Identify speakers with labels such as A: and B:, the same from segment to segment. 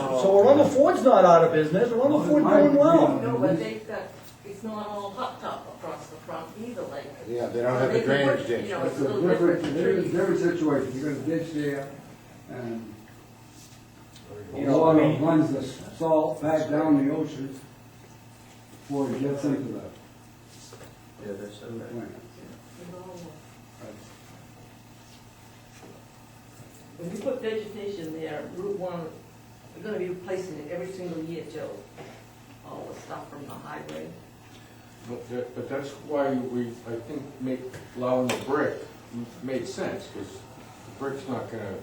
A: So Arundel Ford's not out of business, Arundel Ford doing well.
B: No, but they've got, it's not all hopped up across the front either, like.
C: Yeah, they don't have the
B: They can
C: drainage
B: put,
C: ditch.
B: You know, it's
D: It's
B: a
D: a
B: little
D: different,
B: different for
D: different,
B: trees.
D: different situation, you got a ditch there, and
A: You
D: the
A: know, I
D: water
A: mean-
D: runs the salt back down the ocean before it gets into the
E: Yeah, that's
D: the
E: so
D: plant.
B: you know. When you put vegetation there, Route One, we're gonna be replacing it every single year, Joe. All the stuff from the highway.
F: But that, but that's why we, I think, make, allowing the brick made sense, because the brick's not gonna,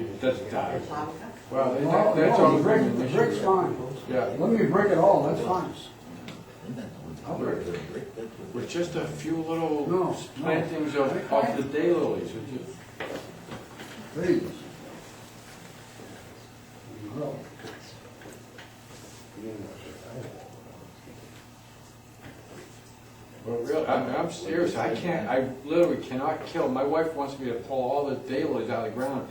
F: it doesn't die. Well,
D: No,
F: that- that's
D: no,
F: all.
D: the brick, the brick's fine,
F: Yeah,
D: let me brick it all, that's fine.
F: with just a few
D: No,
F: little
D: no.
F: plantings of, of the daylilies, it just-
D: Please. Grow.
F: Well, really, I'm, I'm serious, I can't, I literally cannot kill, my wife wants me to pull all the daylilies out of the ground.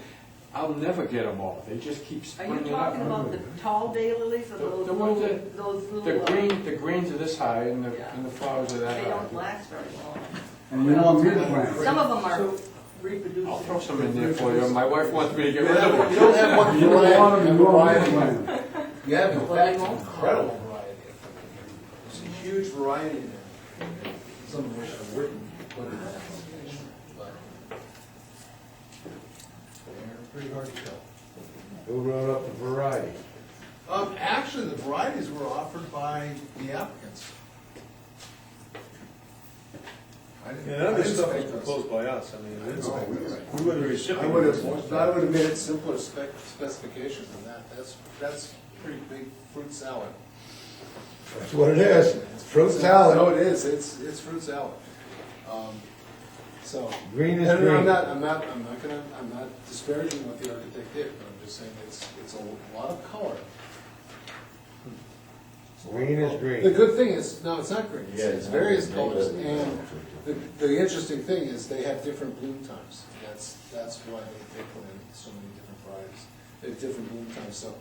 F: I'll never get them all, they just keep
B: Are you
F: springing up.
B: talking about the tall daylilies or
F: The-
B: those
F: the ones
B: little,
F: that-
B: those little?
F: The
B: uh,
F: green, the greens are this high and the,
B: Yeah.
F: and the flowers are
B: They
F: that
B: don't
F: high.
B: last very long.
D: And you want me to plant?
B: Some of them are reproducing.
F: I'll throw some in there for you, my wife wants me to get
E: You
F: rid of
E: have,
F: them.
E: you don't have one
D: You don't want them
E: variety,
D: to
E: you have a
D: grow on the
E: variety.
D: plant.
E: You have in fact an incredible variety. It's a huge variety there. Some of which are written, but it's, but they're pretty hard to tell.
C: Who wrote up the variety?
G: Um, actually, the varieties were offered by the applicants. I didn't-
H: And other
G: I didn't
H: stuff was
G: spec those.
H: proposed by us, I mean, it's,
G: Oh, we were-
H: we were the recipient.
G: I would have, I would have made it simpler spec, specifications than that, that's, that's pretty big fruit salad.
C: That's what it is, fruit
G: No,
C: salad,
G: it is, it's, it's fruit salad. Um, So.
C: Green is
G: And
C: green.
G: I'm not, I'm not, I'm not gonna, I'm not disparaging what the architect did, but I'm just saying it's, it's a lot of color.
C: green is
G: The
C: green.
G: good thing is, no, it's not green, it's it's various colors, and the, the interesting thing is they have different bloom times. That's, that's why they, they put in so many different varieties, they have different bloom times, so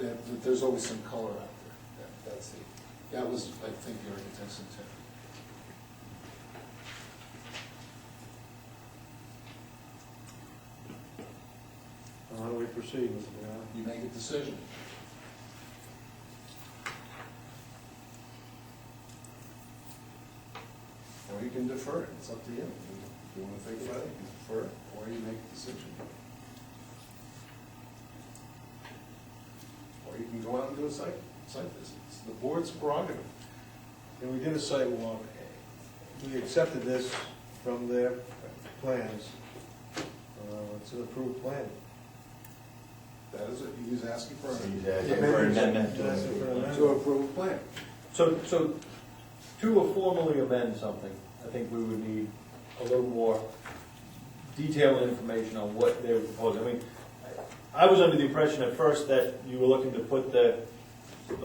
G: there, there's always some color out there. That- That's the, that was, I think, your intention too.
H: How do we proceed, Mr. Brown?
G: You make a decision. Or you can defer it, it's up to you. If you wanna think about it, you defer it, or you make a decision. Or you can go out and do a site, site visit, it's the board's prerogative.
H: And we did a site walk, we accepted this from their plans, uh, it's an approved plan.
G: That is it, he's asking for
E: He's
G: a-
E: asking for an amendment to-
H: That's for an
G: to
H: amendment.
G: approve a plan.
A: So, so to formally amend something, I think we would need a little more detailed information on what they were proposing. I mean, I was under the impression at first that you were looking to put the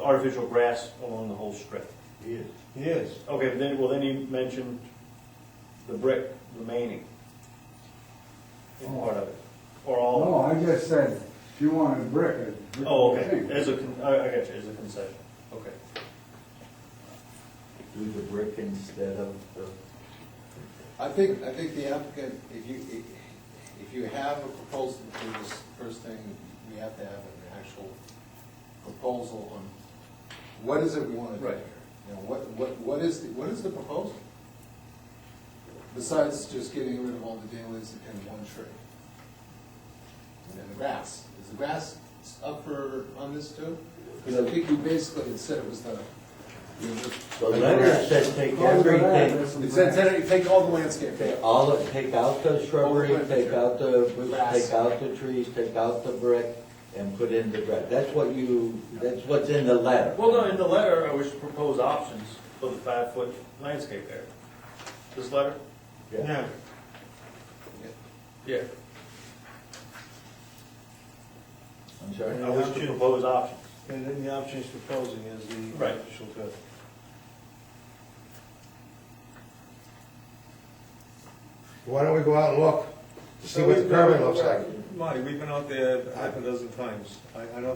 A: artificial grass along the whole strip.
H: He is. He is.
A: Okay, but then, well, then you mentioned the brick remaining in part of it, or all of it.
D: No, I just said, if you want to brick it. brick
A: Oh,
D: the
A: okay,
D: thing.
A: as a, con- I, I got you, as a concession, okay.
E: Do the brick instead of the.
G: I think, I think the applicant, if you, if- if you have a proposal for this, first thing, we have to have an actual proposal on what is it we want to do here? You know, what, what, what is, the- what is the proposal? Besides just getting rid of all the dailies and one tree. And then the grass, is the grass up for, on this too? Because I think you basically said it was the,
E: The letter said take everything,
G: it said, said it- take all the landscape.
E: take all, of- take out the shrubbery, take out the,
G: Grass.
E: take out the trees, take out the brick, and put in the brick. That's what you, that's what's in the letter.
A: Well, no, in the letter, I wish to propose options for the five-foot landscape area. This letter?
E: Yeah.
A: Yeah.
E: I'm sorry?
A: I wish to propose options.
H: And then the option he's proposing is the
A: Right.
H: artificial cut.
C: Why don't we go out and look, to see what the permit looks like?
H: Marty, we've been out there half a dozen times, I, I don't